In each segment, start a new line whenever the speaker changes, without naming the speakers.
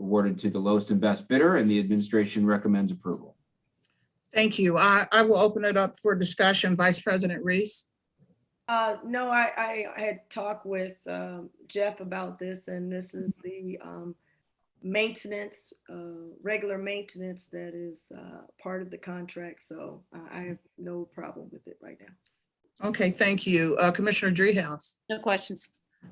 awarded to the lowest and best bidder, and the administration recommends approval.
Thank you. I, I will open it up for discussion. Vice President Reese.
Uh, no, I, I had talked with, um, Jeff about this and this is the, um, maintenance, uh, regular maintenance that is, uh, part of the contract. So I, I have no problem with it right now.
Okay, thank you. Uh, Commissioner Dreehouse.
No questions.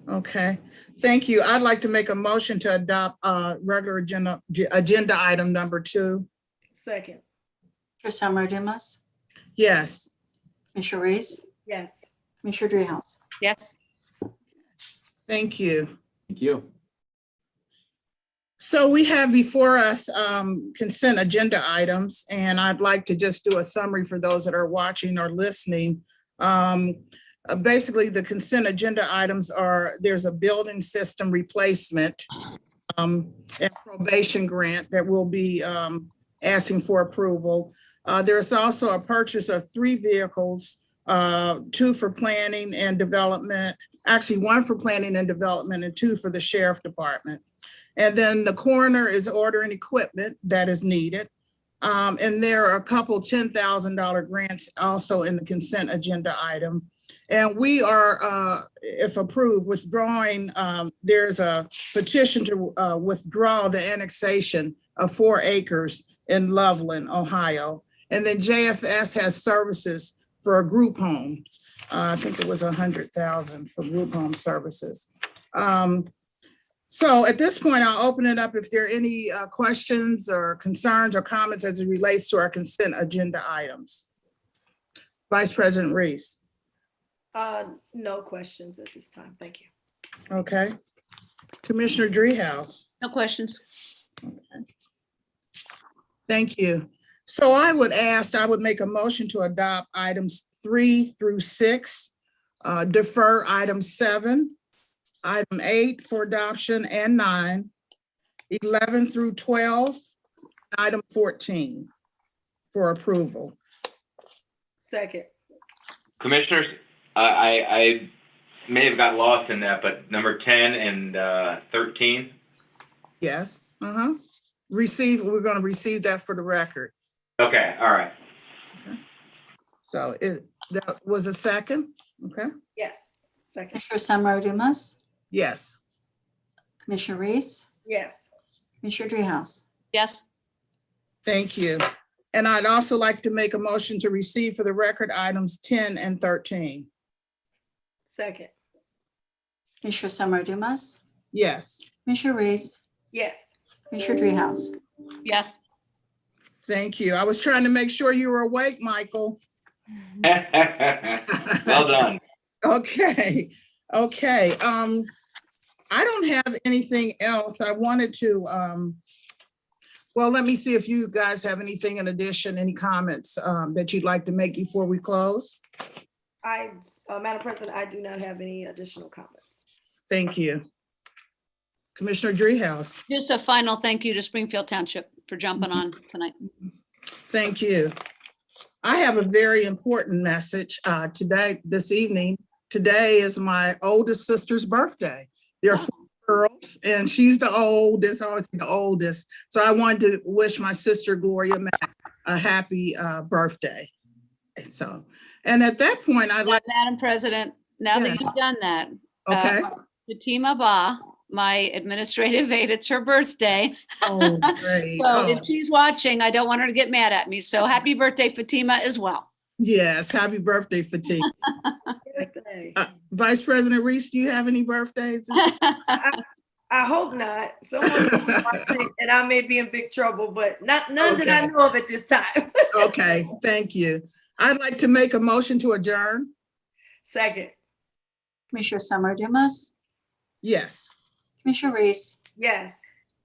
Okay, thank you. I'd like to make a motion to adopt uh, regular agenda, agenda item number two.
Second,
Trustee Alomar Dumas,
Yes,
Commissioner Reese,
yes,
Commissioner Dreehouse.
Yes,
thank you.
Thank you.
So we have before us um, consent agenda items, and I'd like to just do a summary for those that are watching or listening. Um, uh, Basically, the consent agenda items are, there's a building system replacement um, and probation grant that we'll be um, asking for approval. Uh, There's also a purchase of three vehicles, uh, two for planning and development, actually one for planning and development and two for the sheriff department. And then the coroner is ordering equipment that is needed. Um, and there are a couple ten thousand dollar grants also in the consent agenda item. And we are, uh, if approved, withdrawing, um, there's a petition to, uh, withdraw the annexation of four acres in Loveland, Ohio. And then JFS has services for group homes. Uh, I think it was a hundred thousand for group home services. Um, so at this point, I'll open it up if there are any uh, questions or concerns or comments as it relates to our consent agenda items. Vice President Reese,
uh, no questions at this time. Thank you.
okay? Commissioner Dreehouse,
no questions.
thank you. So I would ask, I would make a motion to adopt items three through six, uh, defer item seven, item eight for adoption and nine, 11 through 12, item 14 for approval.
Second,
Commissioners, I, I, I may have got lost in that, but number ten and, uh, thirteen,
Yes, uh-huh. Receive, we're gonna receive that for the record.
okay, all right.
So it, that was a second, okay?
yes, second,
Commissioner Summer Dumas,
Yes,
Commissioner Reese,
yes,
Commissioner Dreehouse.
Yes,
thank you. And I'd also like to make a motion to receive for the record items ten and thirteen.
second,
Commissioner Summer Dumas,
Yes,
Commissioner Reese,
yes,
Commissioner Dreehouse.
yes,
thank you. I was trying to make sure you were awake, Michael.
Well done.
Okay, okay, um, I don't have anything else. I wanted to, um, well, let me see if you guys have anything in addition, any comments, um, that you'd like to make before we close?
I, uh, Madam President, I do not have any additional comments.
Thank you. Commissioner Dreehouse,
just a final thank you to Springfield Township for jumping on tonight.
thank you. I have a very important message, uh, today, this evening. Today is my oldest sister's birthday. There are four girls, and she's the oldest, always the oldest. So I wanted to wish my sister Gloria Mack a happy, uh, birthday. And So, and at that point, I'd
Now,
like,
Madam President, now that you've done that,
okay.
Fatima Ba, Ah, my administrative aide, it's her birthday.
Oh, great.
So
Oh.
if she's watching, I don't want her to get mad at me. So happy birthday Fatima as well.
Yes, happy birthday, Fatima.
Birthday.
Uh, Vice President Reese, do you have any birthdays?
I hope not. Someone could be watching and I may be in big trouble, but not none that I know of at this time.
Okay, thank you. I'd like to make a motion to adjourn.
Second,
Commissioner Summer Dumas,
Yes,
Commissioner Reese,
yes.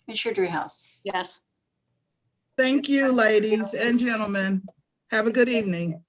Commissioner Dreehouse.
Yes.
thank you, ladies and gentlemen. Have a good evening.